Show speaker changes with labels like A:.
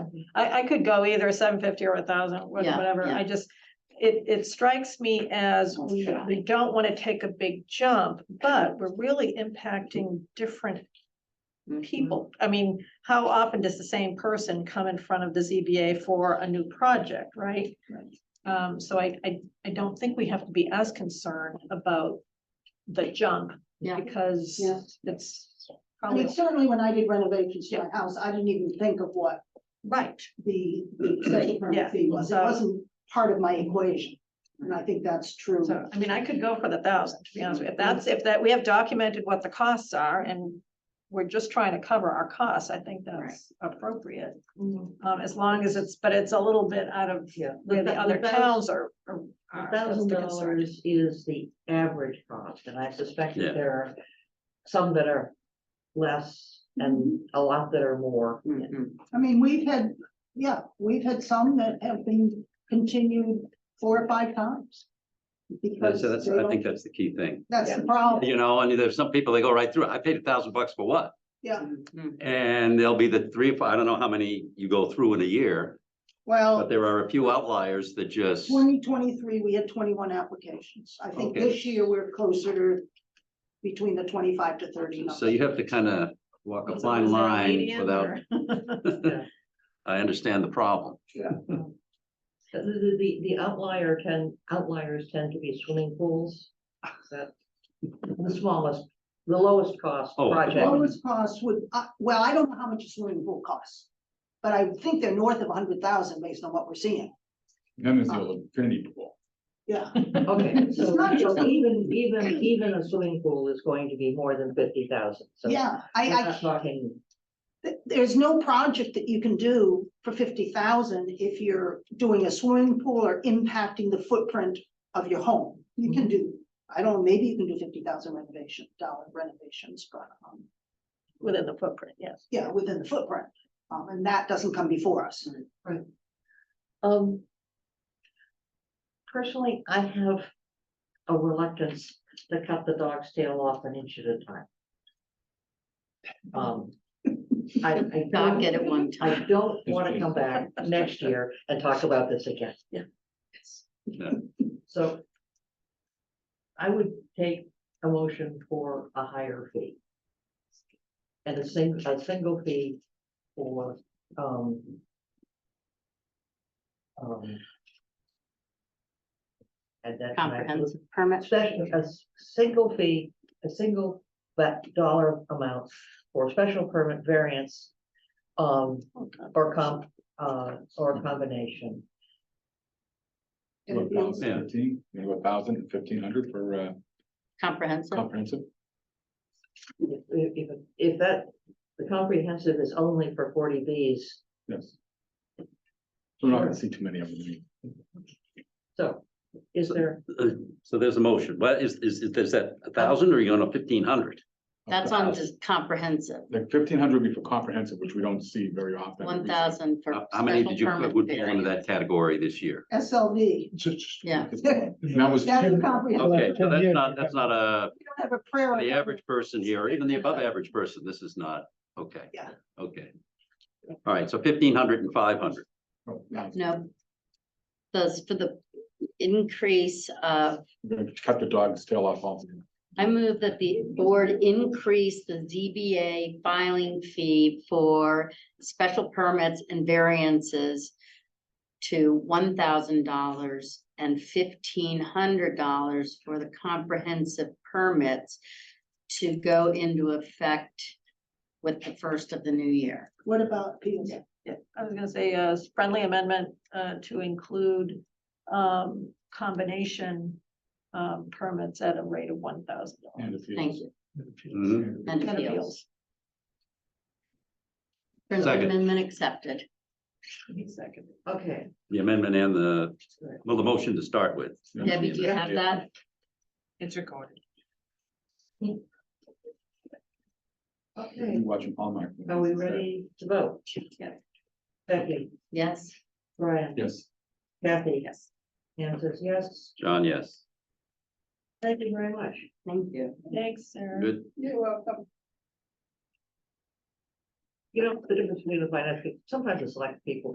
A: I, I could go either seven fifty or a thousand,
B: Yeah,
A: whatever,
B: yeah.
A: I just, it, it strikes me as
B: Let's
A: we,
B: try.
A: we don't want to take a big jump, but we're really impacting different
C: Mm-hmm.
B: Mm-hmm.
A: people. I mean, how often does the same person come in front of the ZBA for a new project, right?
B: Right.
A: Um, so I, I, I don't think we have to be as concerned about the jump
B: Yeah.
A: because
D: Yeah.
A: it's
D: I mean,
A: probably,
D: certainly when I did renovations to my house, I didn't even think of what
A: right,
D: the the special
A: Yeah,
D: permit fee was. It
A: so-
D: wasn't part of my equation. And I think that's true.
A: so, I mean, I could go for the thousand, to be honest with you, if that's, if that, we have documented what the costs are and we're just trying to cover our costs, I think that's appropriate,
B: Mhm.
A: um, as long as it's, but it's a little bit out of
E: Yeah.
A: where the
E: The-
A: other
E: the thou-
A: towns are. are- are. That's
E: Thousand
A: the concern.
E: dollars is the average cost, and I suspect
C: Yeah.
E: that there are some that are less and
D: Mm-hmm.
E: a lot that are more.
C: Mm-hmm.
B: Mhm.
D: I mean, we've had, yeah, we've had some that have been continued four or five times.
C: And
D: Because
C: so that's,
D: they
C: I
D: don't-
C: think that's the key thing.
D: that's the problem.
C: You know, and there's some people, they go right through, it. I paid a thousand bucks for what?
D: Yeah,
C: Mm-hmm. And there'll be the three, or four- I don't know how many you go through in a year, but
D: well,
C: there are a few outliers that just,
D: twenty twenty-three, we had twenty-one applications. I think
C: Okay.
D: this year we're closer to between the twenty-five to thirty. number.
C: so you have to kind of walk a
A: Was it-
C: fine
A: was there a
C: line
A: median
C: without.
A: or-
C: I understand the problem.
E: The, the, the- the outlier tend outliers tend to be swimming pools. That- The smallest, the lowest cost
C: Oh, the
E: project.
D: Lowest cost would, uh, well, I don't know how much a swimming pool costs, but I think they're north of a hundred thousand based on what we're seeing.
F: Then
B: Uh,
F: it's all infinity pool.
D: Yeah,
E: Okay, so
D: not just-
E: so even, even, even a swimming pool is going to be more than fifty thousand. So
D: yeah,
E: we're
D: I, I,
E: not Talking
D: th- there's no project that you can do for fifty thousand if you're doing a swimming pool or impacting the footprint of your home. You can do, I don't, maybe you can do fifty thousand renovation, dollar renovations, but, um,
A: Within the footprint, yes.
D: yeah, within the footprint. Um, and that doesn't come before us.
E: Um. Personally, I have a reluctance to cut the dog's tail off an inch at a time. Um, I, I.
B: Not
E: don't-
B: get it one
E: I
B: time.
E: don't wanna come back next year and talk about this again.
B: Yeah.
C: Yeah.
E: So. I would take a motion for a higher fee. And a sing, a single fee for, um. um, And then.
B: Comprehensive permit.
E: Special, a s- single fee, a single, but dollar amount for special permit variance. Um, or comp, uh, or combination.
D: And it'd be-
C: Yeah.
F: Thousand fifteen, maybe a thousand and fifteen hundred for uh
B: Comprehensive.
F: comprehensive.
E: If, if, if- if that, the comprehensive is only for forty Bs,
F: Yes. We're not gonna see too many of them. I mean.
E: so is there,
C: Uh, So there's a motion. What is, is, is that a thousand or are you going to fifteen hundred?
B: That's on just comprehensive,
F: Like fifteen hundred would be for comprehensive, which we don't see very often.
B: one thousand for.
C: How how many
B: special
C: did you,
B: permit
C: put would fall into
B: variance.
C: that category this year?
D: SLV,
F: Just- just-
B: Yeah.
F: And That was.
D: that's comprehensive.
C: Okay, so that's not, that's not a
D: We don't have a prayer.
C: the average person here, or even the above average person, this is not, okay.
D: Yeah.
C: Okay. All right, so fifteen hundred and five hundred,
F: Oh, yeah,
B: No. Those for the increase uh, of,
F: we're gonna Cut the dog's tail off also.
B: I move that the board increase the ZBA filing fee for special permits and variances to one thousand dollars and fifteen hundred dollars for the comprehensive permits to go into effect with the first of the new year.
D: What about P and Z?
A: Yeah, I was gonna say, uh, friendly amendment, uh, to include, um, combination, um, permits at a rate of one thousand
F: And
A: dollars.
F: if you-
B: Thank you. Mm-hmm.
C: Mhm.
B: And
A: And
B: appeals.
A: appeals.
B: Friendly
C: Second.
B: amendment accepted.
A: Second.
E: okay,
C: the amendment and the, well, the motion to start with.
B: Debbie, do you have that?
A: It's recorded.
E: okay,
F: You Watching Hallmark.
E: are we ready to vote?
A: Yeah.
E: Becky,
B: Yes.
E: Brian,
F: Yes.
E: Kathy,
A: Yes.
E: Anne says yes,
C: John, yes,
E: thank you very much.
B: Thank you.
A: Thanks, Sarah.
C: good,
D: You're welcome.
E: You know, the difference between the finance, sometimes it's like people